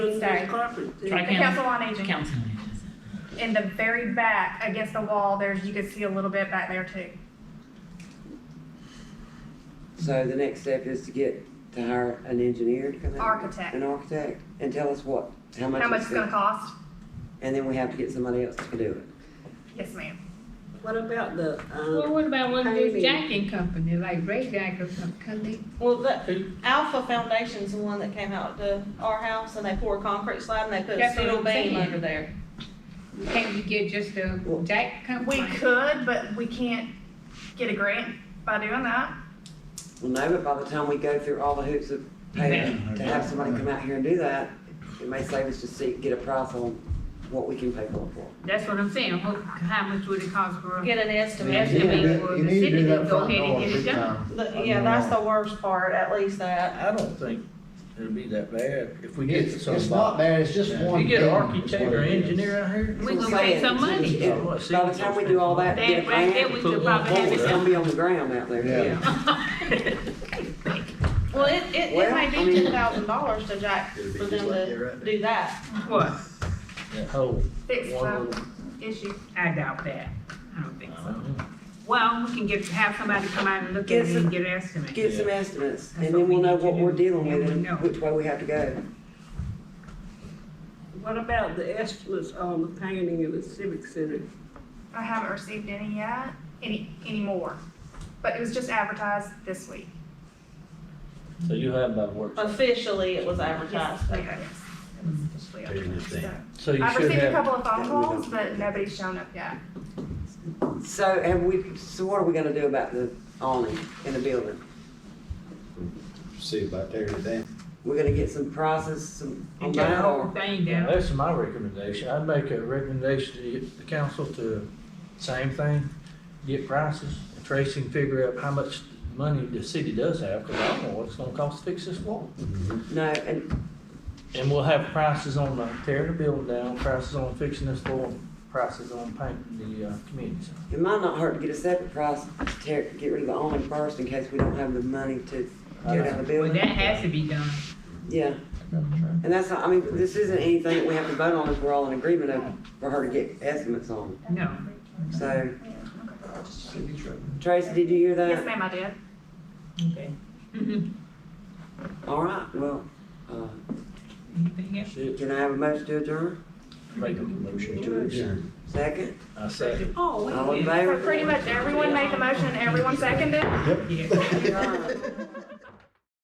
Tuesday. Conference. The Tri-county. Council on Aging. Council. In the very back, against the wall, there's, you can see a little bit back there too. So the next step is to get, to hire an engineer to come out? Architect. An architect, and tell us what, how much. How much it's it's gonna cost? And then we have to get somebody else to do it. Yes, ma'am. What about the, Well, um, what about one of Maybe. these jacking companies, like Ray Jack or something, could they? Well, the Alpha Foundation's the one that came out to our house and they poured concrete slab and they put a That's what steel I'm beam saying. under there. Can't you get just a jack We company? could, but we can't get a grant by doing that. Well, no, but by the time we go through all the hoops of paying, Yeah. to have somebody come out here and do that, it may save us to see, get a price on what we can pay for it for. That's what I'm saying, what, how much would it cost for a Get an Yeah, estimate. You need to do- Well, you the need to city do that can go front ahead and door get it big done. time. The- I Yeah, mean, that's the worst part, at least that. I don't think it'll be that bad if we get It's, somebody. it's not bad, it's just If one. you get an thing, is architect what or it is. engineer out here. We That's gonna what I'm pay some saying. money. Yeah. By By the time we do all that, get a That, right there, plan, we Put could one probably have it's it forward. gonna done. be on the ground out there. Yeah. Well, it, it, it Well, may I be mean- ten thousand dollars to jack It'll be for just them like to that right there. do that. What? That whole Fix one the little. issue. I doubt that, I don't think I so. don't know. Well, we can get, have somebody come out and look Get at it some- and get an estimate. Get some estimates, That's and what then we we'll know need to what we're do. dealing with Yeah, we and know. which way we have to go. what about the estimates on the painting of the civic center? I haven't received any yet, any, anymore. But it was just advertised this week. So you have that work. Uh, Officially, it was advertised. Yes, Okay. yes. It was officially advertised, so. So you I've should received a have, couple of phone Yeah, we calls, don't- but nobody's shown up yet. So, and we, so what are we gonna do about the awning in the building? See about there today. We're gonna get some prices, some, on And get the that, whole or thing Now, down. That's my recommendation. I'd make a recommendation to the- the council to, same thing, get prices. and Tracy can figure out how much money the city does have, because I don't know what it's gonna cost to fix this wall. no, and And we'll have prices on the tearing the building down, prices on fixing this wall, prices on painting the, uh, community center. it might not hurt to get a separate price to tear, get rid of the awning first in case we don't have the money to tear down the Well, that building. has to be done. Yeah, and that's, not- I mean, this isn't anything that we have to vote on if we're all in agreement of, for her to get estimates on, No, so. Tracy, did you hear that? Yes, ma'am, I did. Mhm. All right, well, uh, anything else? Shit, can I have a motion to adjourn? make a motion to it. Yeah. Second, I say. Oh, wait a all minute. in So favor? pretty much everyone made the motion, everyone seconded. Yeah. All right.